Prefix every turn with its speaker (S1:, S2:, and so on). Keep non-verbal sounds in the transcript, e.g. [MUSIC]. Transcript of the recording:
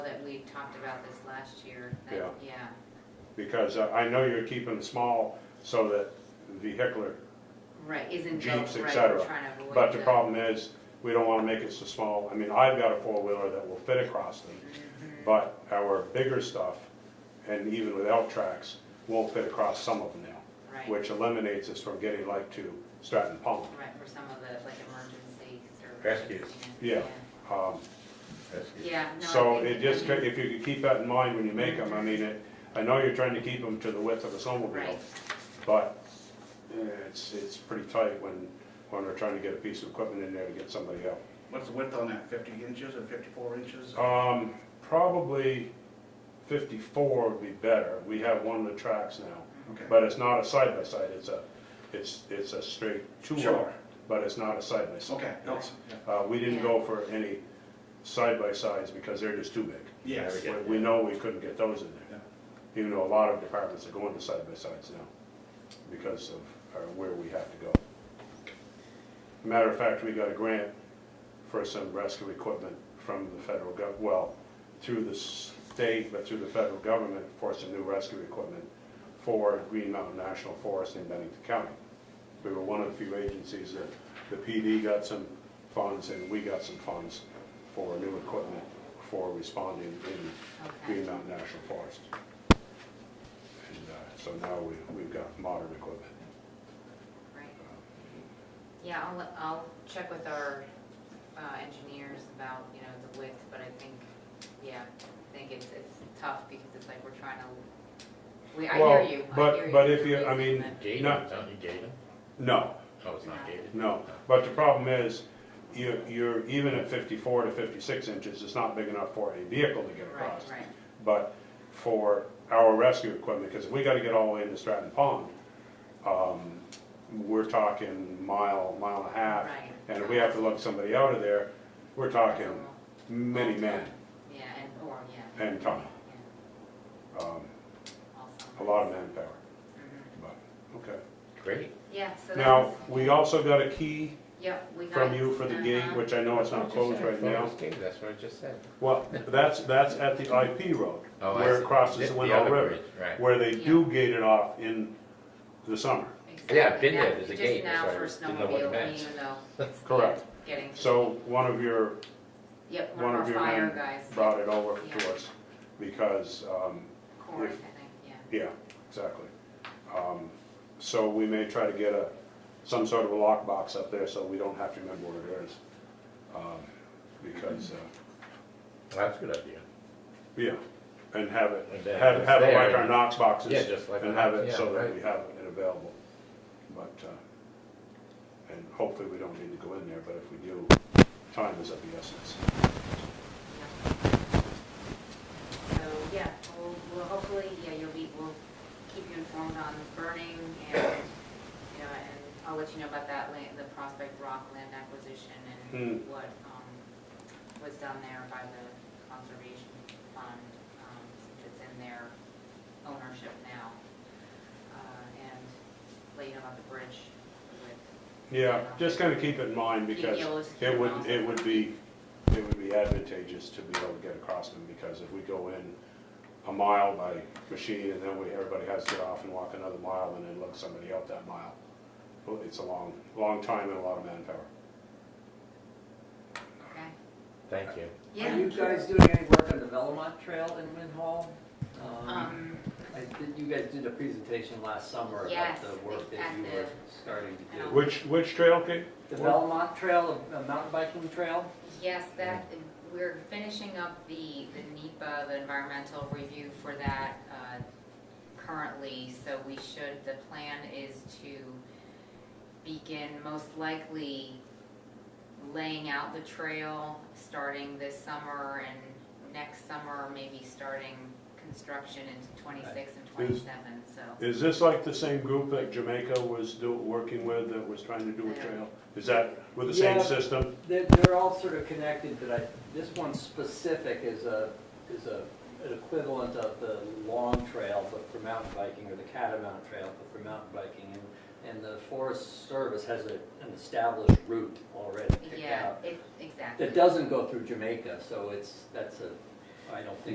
S1: that we talked about this last year. that-
S2: Yeah.
S1: Yeah,
S2: Because I I know you're keeping it small so that vehicular
S1: right, isn't. go-
S2: Jeeps, et
S1: right,
S2: cetera.
S1: trying to avoid
S2: But the
S1: the-
S2: problem is, we don't wanna make it so small. I mean, I've got a four-wheeler that will fit across them,
S1: Mm-hmm.
S2: but our bigger stuff, and even with L-Trax, won't fit across some of them now,
S1: Right,
S2: which eliminates us from getting like to Stratton Pond.
S1: right, for some of the, like, emergency services.
S3: Rescues.
S2: Yeah. Um,
S3: That's good.
S1: Yeah, no. I
S2: So
S1: think-
S2: it just, ca- if you could keep that in mind when you make them, I mean, it, I know you're trying to keep them to the width of a snowmobile,
S1: Right,
S2: but eh, it's, it's pretty tight when, when they're trying to get a piece of equipment in there to get somebody out.
S4: What's the width on that, fifty inches or fifty-four inches?
S2: Um, probably fifty-four would be better. We have one of the tracks now,
S4: Okay.
S2: but it's not a side-by-side, it's a, it's, it's a straight two-wheeler,
S4: Sure.
S2: but it's not a side-by-side.
S4: Okay, no,
S2: It's-
S4: yeah.
S2: Uh, we didn't
S1: Yeah.
S2: go for any side-by-sides because they're just too big.
S4: yes,
S3: Yeah.
S2: We we know we couldn't get those in there,
S4: Yeah.
S2: even though a lot of departments are going to side-by-sides now because of uh, where we have to go. Matter of fact, we got a grant for some rescue equipment from the federal gov, well, through the state, but through the federal government for some new rescue equipment for Green Mountain National Forest in Bennington County. We were one of the few agencies that the PD got some funds and we got some funds for new equipment for responding in
S1: okay,
S2: Green Mountain National Forest. And uh, so now we, we've got modern equipment.
S1: right. Yeah, I'll, let- I'll check with our uh, engineers about, you know, the width, but I think, yeah, I think it's, it's tough because it's like we're trying to, we, I hear
S2: Well,
S1: you, I
S2: but-
S1: hear you.
S2: but if you- I
S1: completely,
S2: mean,
S1: but-
S3: Gated,
S2: No.
S3: don't you gated?
S2: No,
S3: Oh, it's not gated? Oh,
S2: No, but the problem is, you're, you're, even at fifty-four to fifty-six inches, it's not big enough for a vehicle to get
S1: Right,
S2: across.
S1: right,
S2: But for our rescue equipment, because if we gotta get all the way into Stratton Pond, um, we're talking mile, mile and a half.
S1: Right.
S2: And if we have to lug somebody out of there, we're talking many men
S1: yeah, and, or, yeah,
S2: and time,
S1: yeah,
S2: um,
S1: also.
S2: a lot of manpower,
S1: Mhm.
S2: but, okay.
S3: Great.
S1: Yeah, so that's.
S2: Now, we also got a key
S1: Yep, we got.
S2: from
S1: it.
S2: you for the gate,
S1: Uh-huh.
S2: which I know it's
S3: I
S2: not
S3: just
S2: closed
S3: said I
S2: right
S3: thought it
S2: now.
S3: was gated, That's what I just said.
S2: Well, that's, that's at the IP road,
S3: Oh, I
S2: where
S3: see.
S2: it crosses the
S3: The
S2: Window
S3: other
S2: River,
S3: bridge, right.
S2: where they do gate it off in the summer.
S1: Exactly.
S3: Yeah, I've been there.
S1: Yeah,
S3: There's a gate. That's why I
S1: Just now
S3: didn't
S1: for
S3: know what it
S1: snowmobile,
S3: meant.
S1: even
S2: [LAUGHS]
S1: though it's
S2: Correct.
S1: getting.
S2: So one of your,
S1: Yep, one
S2: one
S1: of our
S2: of your
S1: fire
S2: men
S1: guys.
S2: brought it over
S1: Yeah.
S2: to us, because, um,
S1: Corey, I
S2: if-
S1: think, yeah.
S2: yeah, exactly. Um, So we may try to get a, some sort of a lockbox up there, so we don't have to remember where it is. Um, Because, uh,
S3: That's a good idea.
S2: Yeah, and have it,
S3: And then
S2: have,
S3: it's
S2: have it
S3: there,
S2: like our
S3: and-
S2: Knox boxes.
S3: Yeah, just like
S2: And
S3: our
S2: have
S3: Knox,
S2: it so
S3: yeah,
S2: that
S3: right.
S2: we have it available. But, uh, and hopefully we don't need to go in there, but if we do, time is of the essence.
S1: So, yeah, we'll, we'll hopefully, yeah, you'll be, we'll keep you informed on burning and, you know, and I'll let you know about that land, the Prospect Rock land acquisition and what, um, was done there by the conservation fund, um, since it's in their ownership now. Uh, and let you know about the bridge with,
S2: Yeah, just kind of keep it in mind
S1: Yeah,
S2: because
S1: yeah, we'll just keep
S2: it
S1: it
S2: would,
S1: on.
S2: it would be, it would be advantageous to be able to get across them because if we go in a mile by machine and then we, everybody has to get off and walk another mile and then lug somebody out that mile. Well, It's a long, long time and a lot of manpower.
S1: okay?
S3: Thank you.
S5: Are
S1: Yeah,
S5: you guys doing any work on the Velomont Trail in Win Hall? Um,
S1: um,
S5: I did- You guys did a presentation last summer about
S1: Yes,
S5: the work that
S1: at
S5: you were
S1: the-
S5: starting to do.
S2: Which, which trail, Kate?
S5: The Velomont Trail, a mountain biking trail?
S1: Yes, that, we're finishing up the, the NEPA, the environmental review for that uh, currently, so we should, the plan is to begin most likely laying out the trail, starting this summer and next summer, maybe starting construction in twenty-six and twenty-seven, so.
S2: Is this like the same group that Jamaica was do, working with that was trying to do a trail? Is that with the same
S5: Yeah.
S2: system?
S5: They're, they're all sort of connected, but I, this one specific is a, is a, an equivalent of the long trail, but for mountain biking, or the catamount trail, but for mountain biking. And and the Forest Service has a- an established route already picked
S1: Yeah,
S5: out.
S1: it, exactly.
S5: That doesn't go through Jamaica, so it's, that's a, I don't think